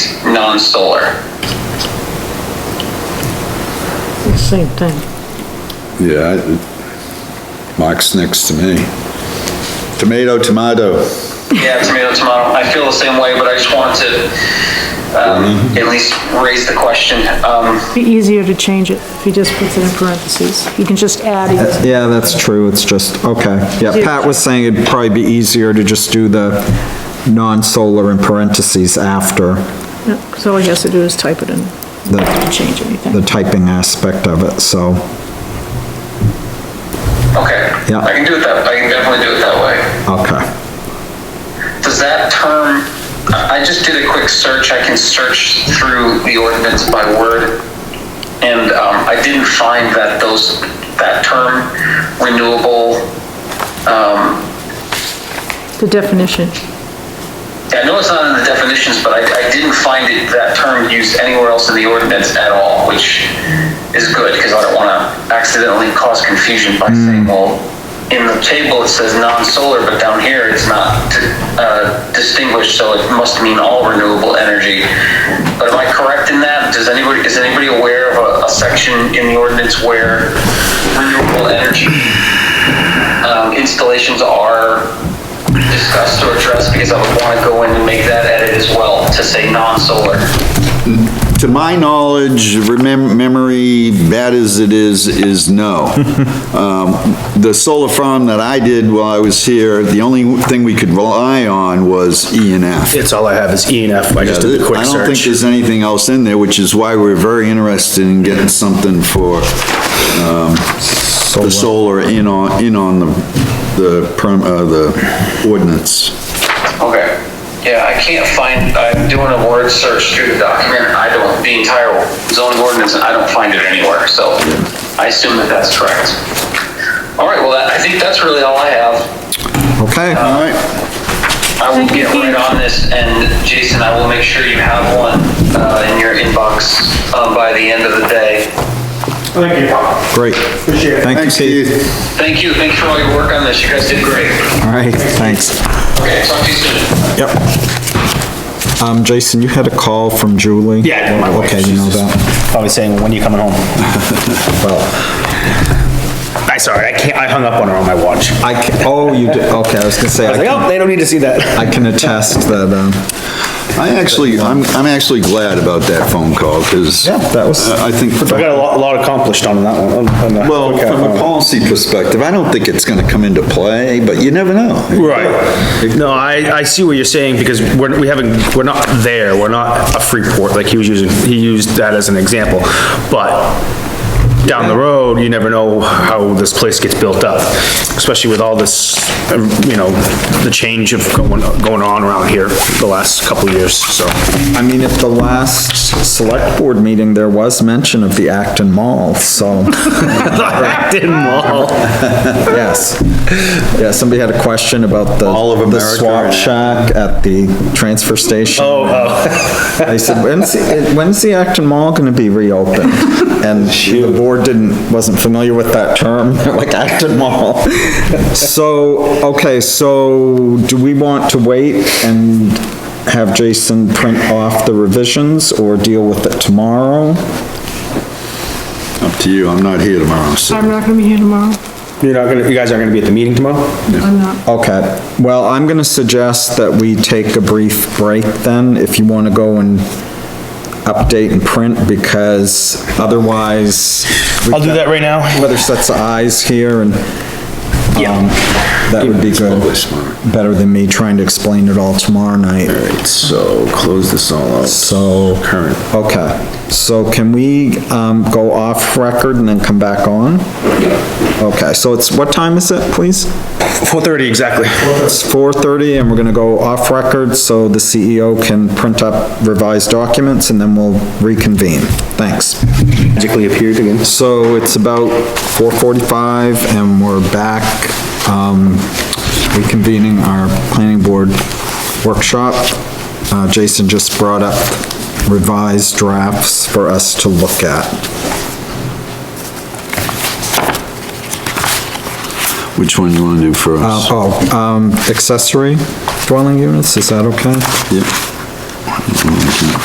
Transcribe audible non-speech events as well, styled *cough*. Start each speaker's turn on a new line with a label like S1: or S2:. S1: on solar.
S2: Same thing.
S3: Yeah, I- Mike's next to me. Tomato, tomato.
S1: Yeah, tomato, tomato. I feel the same way, but I just wanted to um, at least raise the question. Um,
S2: Be easier to change it if he just puts it in parentheses. You can just add it.
S4: Yeah, that's true, it's just, okay, yeah, Pat was saying it'd probably be easier to just do the non-solar in parentheses after
S2: Because all he has to do is type it in,
S4: the,
S2: not change anything.
S4: the typing aspect of it, so,
S1: okay.
S4: Yeah.
S1: I can do it that, I can definitely do it that way.
S4: okay.
S1: Does that term, I I just did a quick search, I can search through the ordinance by word, and um, I didn't find that those, that term renewable, um,
S2: The definition.
S1: I know it's not in the definitions, but I I didn't find it, that term used anywhere else in the ordinance at all, which is good, because I don't want to accidentally cause confusion by saying, well, in the table, it says non-solar, but down here, it's not uh, distinguished, so it must mean all renewable energy. But am I correct in that? Does anybody, is anybody aware of a- a section in the ordinance where renewable energy um, installations are discussed or addressed because I would want to go in and make that edit as well to say non-solar.
S3: To my knowledge, remem- memory, bad as it is, is
S5: *laughs*
S3: no. Um, The solar farm that I did while I was here, the only thing we could rely on was E and F.
S5: It's all I have is E and F. I just did a quick
S3: I don't think
S5: search.
S3: there's anything else in there, which is why we're very interested in getting something for um, the solar in on, in on the, the perm, uh, the ordinance.
S1: Okay. Yeah, I can't find, I'm doing a word search through the document, I don't, the entire zoning ordinance, and I don't find it anywhere, so I assume that that's correct. All right, well, that- I think that's really all I have.
S4: Okay,
S3: All right,
S1: I will
S2: Thank you,
S1: get right
S2: Keith.
S1: on this, and Jason, I will make sure you have one uh, in your inbox uh, by the end of the day.
S6: Thank you.
S4: great.
S6: Appreciate it.
S4: Thank you,
S3: thanks
S4: Keith.
S3: Keith.
S1: Thank you, thank you for all your work on this, you guys did great.
S4: All right, thanks.
S1: Okay, talk to you soon.
S4: Yep. Um, Jason, you had a call from Julie?
S5: Yeah, my wife,
S4: Okay, you
S5: she's
S4: know
S5: just-
S4: that.
S5: Probably saying, when are you coming home?
S4: *laughs* Well,
S5: I, sorry, I can't, I hung up on her on my watch. I
S4: I, ca- oh, you did, okay, I was gonna say, I
S5: was like,
S4: can-
S5: oh, they don't need to see that.
S4: I can attest that, um,
S3: I actually, I'm, I'm actually glad about that phone call, because
S4: Yeah, that was-
S3: I think,
S5: I got a lot, a lot accomplished on that one. on- on that
S3: well,
S5: quick, uh,
S3: from a policy perspective, I don't think it's gonna come into play, but you never know.
S5: Right. No, I, I see what you're saying, because we're, we haven't, we're not there, we're not a Freeport, like he was using, he used that as an example. But down the road, you never know how this place gets built up, especially with all this, um, you know, the change of going, going on around here the last couple of years, so. *laughs*
S4: I mean, at the last select board meeting, there was mention of the Acton Mall, so, *laughs*
S5: Acton Mall.
S4: yes. Yeah, somebody had a question about the.
S3: All of
S4: The
S3: America
S4: swap
S3: and-
S4: shack at the transfer station.
S5: Oh, oh.
S4: They said, when's, the- when's the Acton Mall gonna be reopened? And the board didn't, wasn't familiar with that term, *laughs* They're like Acton Mall. So, okay, so do we want to wait and have Jason print off the revisions or deal with it tomorrow?
S3: Up to you, I'm not here tomorrow, so.
S2: I'm not gonna be here tomorrow.
S5: You're not gonna, you guys aren't gonna be at the meeting tomorrow?
S2: I'm not.
S4: Okay, well, I'm gonna suggest that we take a brief break then, if you wanna go and update and print, because otherwise. we
S5: I'll do
S4: got-
S5: that right now.
S4: Whether sets of eyes here and, um, that would be good.
S3: Probably smart.
S4: Better than me trying to explain it all tomorrow night.
S3: Alright, so close this all out.
S4: So-
S3: Current.
S4: Okay, so can we, um, go off record and then come back on? Okay, so it's, what time is it, please?
S5: 4:30, exactly.
S4: It's 4:30 and we're gonna go off record so the CEO can print up revised documents and then we'll reconvene. Thanks.
S5: Magically appeared again.
S4: So it's about 4:45 and we're back, um, reconvening our planning board workshop. Uh, Jason just brought up revised drafts for us to look at.
S3: Which one you wanna do first?
S4: Uh, oh, um, accessory dwelling units, is that okay?
S3: Yep.